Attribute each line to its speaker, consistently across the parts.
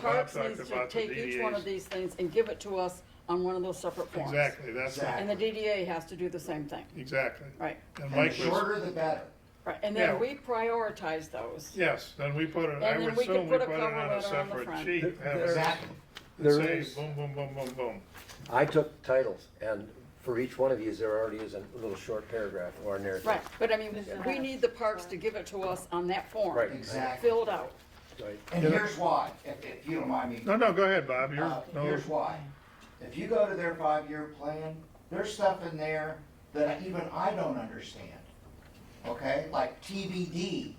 Speaker 1: Parks
Speaker 2: talked
Speaker 1: needs to
Speaker 2: about the
Speaker 1: take each one of
Speaker 2: DDAs.
Speaker 1: these things and give it to us on one of those separate forms.
Speaker 2: Exactly, that's,
Speaker 1: And the DDA has to do the same thing,
Speaker 2: exactly.
Speaker 1: right,
Speaker 2: And
Speaker 3: And the
Speaker 2: Mike was,
Speaker 3: shorter the better.
Speaker 1: right, and then
Speaker 2: Yeah.
Speaker 1: we prioritize those.
Speaker 2: yes, then we put it, I
Speaker 1: And then
Speaker 2: would
Speaker 1: we could
Speaker 2: assume we
Speaker 1: put a
Speaker 2: put it
Speaker 1: cover
Speaker 2: on
Speaker 1: letter on
Speaker 2: a
Speaker 1: the
Speaker 2: separate
Speaker 1: front.
Speaker 2: sheet. have it
Speaker 3: Exactly.
Speaker 4: There
Speaker 2: say
Speaker 4: is-
Speaker 2: Boom, boom, boom, boom, boom.
Speaker 4: I took titles, and for each one of these, there already is a little short paragraph or narrative.
Speaker 1: Right, but I mean, we need the parks to give it to us on that form.
Speaker 4: Right.
Speaker 3: Exactly.
Speaker 1: Filled out.
Speaker 4: Right.
Speaker 3: And here's why, if, if you don't mind me
Speaker 2: No, no, go ahead, Bob, you're,
Speaker 3: Uh,
Speaker 2: no,
Speaker 3: Here's why. If you go to their five-year plan, there's stuff in there that even I don't understand. Okay, like TBD,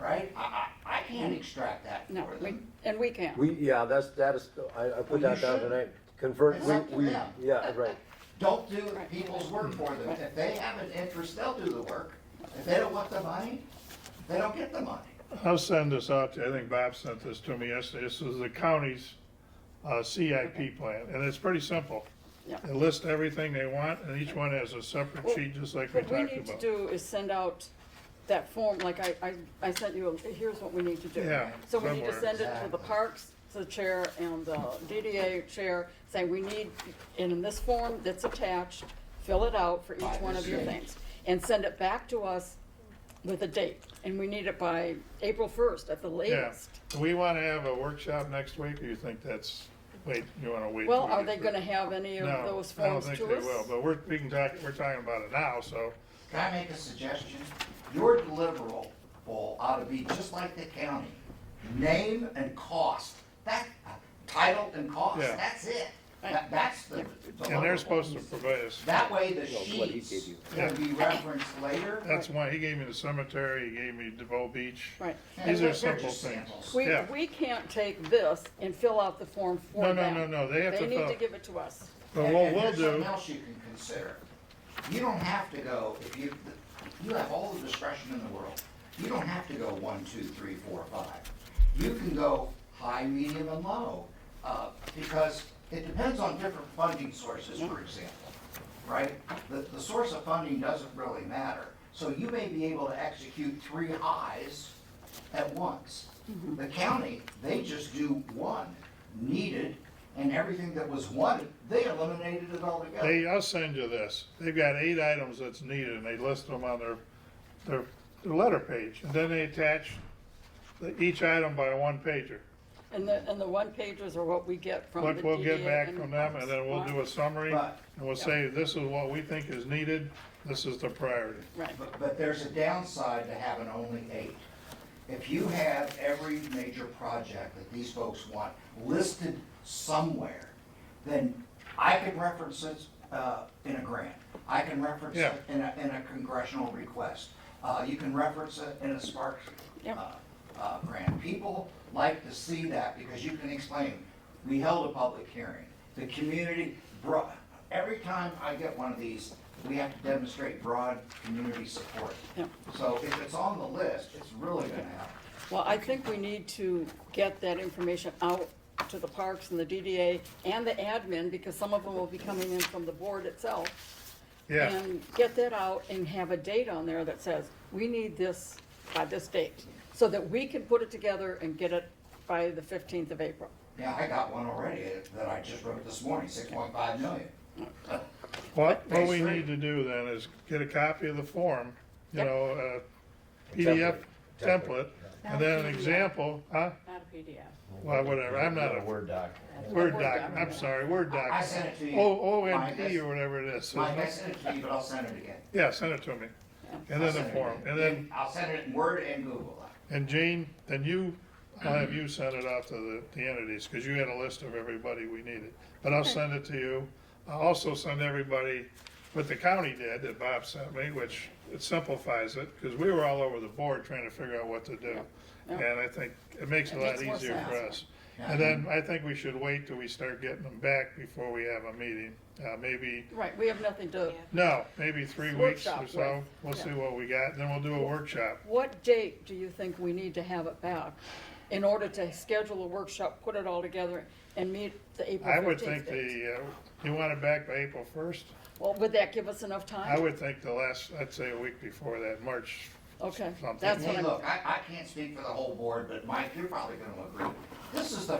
Speaker 3: right? I, I, I can't extract that
Speaker 1: Mm. No,
Speaker 3: for
Speaker 1: we,
Speaker 3: them.
Speaker 1: and we can't.
Speaker 4: We, yeah, that's, that is, I, I put
Speaker 3: Well, you
Speaker 4: that down
Speaker 3: should.
Speaker 4: tonight. Convert,
Speaker 3: It's
Speaker 4: we,
Speaker 3: up to
Speaker 4: we,
Speaker 3: them.
Speaker 4: yeah, right.
Speaker 3: Don't do
Speaker 1: Right.
Speaker 3: people's work for them. If they have an interest, they'll do the work. If they don't want the money, they don't get the money.
Speaker 2: I'll send this out, to you. I think Bob sent this to me yesterday, this is the county's, uh, CIP plan, and it's pretty simple.
Speaker 1: Yeah.
Speaker 2: They list everything they want, and each one has a separate
Speaker 1: Well,
Speaker 2: sheet, just like we
Speaker 1: What we
Speaker 2: talked
Speaker 1: need to
Speaker 2: about.
Speaker 1: do is send out that form, like I, I, I sent you, a- here's what we need to do.
Speaker 2: Yeah,
Speaker 1: So we need to
Speaker 2: somewhere.
Speaker 1: send it to the parks, to the chair and the DDA chair, saying we need, and in this form that's attached, fill it out for each one of your things. And send it back to us with a date, and we need it by April first at the
Speaker 2: Yeah,
Speaker 1: latest.
Speaker 2: do we wanna have a workshop next week, or you think that's, wait, you wanna wait? till
Speaker 1: Well,
Speaker 2: we
Speaker 1: are
Speaker 2: get
Speaker 1: they
Speaker 2: through?
Speaker 1: gonna have any of
Speaker 2: No,
Speaker 1: those
Speaker 2: I don't
Speaker 1: forms to us?
Speaker 2: think they will, but we're, we can talk, we're talking about it now, so,
Speaker 3: Can I make a suggestion? Your deliverable ought to be just like the county. Name and cost. That, title and cost,
Speaker 2: Yeah.
Speaker 3: that's it. That, that's the
Speaker 2: and they're
Speaker 3: deliverable.
Speaker 2: supposed to provide us,
Speaker 3: That way the
Speaker 4: Well, what he gave
Speaker 3: sheets
Speaker 4: you.
Speaker 3: can be referenced later.
Speaker 2: that's why, he gave me the cemetery, he gave me DeVoe Beach.
Speaker 1: Right.
Speaker 3: And
Speaker 2: These
Speaker 3: they're
Speaker 2: are simple
Speaker 3: just
Speaker 2: things.
Speaker 3: samples.
Speaker 1: We,
Speaker 2: Yeah.
Speaker 1: we can't take this and fill out the form for
Speaker 2: No,
Speaker 1: them.
Speaker 2: no, no, no, they have to
Speaker 1: need
Speaker 2: fill-
Speaker 1: to give it to us.
Speaker 2: But
Speaker 3: And-
Speaker 2: what
Speaker 3: and
Speaker 2: we'll
Speaker 3: here's
Speaker 2: do,
Speaker 3: Something else you can consider. You don't have to go, if you, you have all the discretion in the world. You don't have to go one, two, three, four, five. You can go high, medium, and low, uh, because it depends on different funding sources, for example, right? The, the source of funding doesn't really matter. So you may be able to execute three highs at once. The county, they just do one needed, and everything that was wanted, they eliminated it altogether.
Speaker 2: they, I'll send you this, they've got eight items that's needed, and they list them on their, their, their letter page, and then they attach the- each item by a one pager.
Speaker 1: And the, and the one pagers are what we get from Oh, the
Speaker 2: What we'll get
Speaker 1: DDA
Speaker 2: back
Speaker 1: and
Speaker 2: from them,
Speaker 1: us.
Speaker 2: and then we'll do a summary, and
Speaker 3: Right.
Speaker 2: we'll say, this is what we think is needed, this is the priority.
Speaker 1: Right,
Speaker 3: But, but there's a downside to having only eight. If you have every major project that these folks want listed somewhere, then I can reference it, uh, in a grant. I can reference
Speaker 2: Yeah.
Speaker 3: it in a, in a congressional request. Uh, you can reference it in a Sparks,
Speaker 1: Yep.
Speaker 3: uh, uh, grant. People like to see that because you can explain, we held a public hearing. The community brought, every time I get one of these, we have to demonstrate broad community support.
Speaker 1: Yep.
Speaker 3: So if it's on the list, it's really gonna help.
Speaker 1: well, I think we need to get that information out to the parks and the DDA and the admin, because some of them will be coming in from the board itself.
Speaker 2: Yeah,
Speaker 1: And get that out and have a date on there that says, we need this by this date, so that we can put it together and get it by the fifteenth of April.
Speaker 3: Yeah, I got one already that I just wrote this morning, six point five million.
Speaker 2: what, what we
Speaker 3: Basically.
Speaker 2: need to do then is get a copy of the form, you
Speaker 1: Yep.
Speaker 2: know, uh, PDF
Speaker 4: Template.
Speaker 2: template,
Speaker 5: Not
Speaker 2: and then an
Speaker 5: PDF.
Speaker 2: example, huh?
Speaker 5: Not a PDF.
Speaker 2: Well, whatever, I'm not a
Speaker 6: Word doc.
Speaker 2: Word
Speaker 5: Word
Speaker 2: doc,
Speaker 5: document.
Speaker 2: I'm sorry, Word doc.
Speaker 3: I sent it to you.
Speaker 2: O, O
Speaker 3: My
Speaker 2: N
Speaker 3: best-
Speaker 2: P or whatever it is.
Speaker 3: My, I sent it to you, but I'll send it again.
Speaker 2: Yeah, send it to me. And
Speaker 3: I'll
Speaker 2: then the
Speaker 3: send it
Speaker 2: form,
Speaker 3: again.
Speaker 2: and then,
Speaker 3: I'll send it in Word and Google.
Speaker 2: and Jane, then you, I'll have you send it off to the, the entities, cause you had a list of everybody we needed. But I'll send it to you. I'll also send everybody what the county did that Bob sent me, which it simplifies it, cause we were all over the board trying to figure out what to do.
Speaker 1: yeah.
Speaker 2: And I think it makes it a
Speaker 1: It
Speaker 2: lot
Speaker 1: makes more
Speaker 2: easier for
Speaker 1: sense.
Speaker 2: us. And then I think we should wait till we start getting them back before we have a meeting, uh, maybe
Speaker 1: Right, we have nothing to,
Speaker 5: Yeah.
Speaker 2: No, maybe three weeks or
Speaker 1: Workshop,
Speaker 2: so.
Speaker 1: right.
Speaker 2: We'll
Speaker 1: Yeah.
Speaker 2: see what we got, and then we'll do a workshop.
Speaker 1: what date do you think we need to have it back in order to schedule a workshop, put it all together, and meet the April
Speaker 2: I would
Speaker 1: fifteenth
Speaker 2: think
Speaker 1: date?
Speaker 2: the, uh, you want it back by April first?
Speaker 1: Well, would that give us enough
Speaker 2: I
Speaker 1: time?
Speaker 2: would think the last, I'd say a week before that, March.
Speaker 1: Okay,
Speaker 2: something.
Speaker 1: that's what
Speaker 3: Hey,
Speaker 1: I'm.
Speaker 3: look, I, I can't speak for the whole board, but Mike, you're probably gonna agree. This is the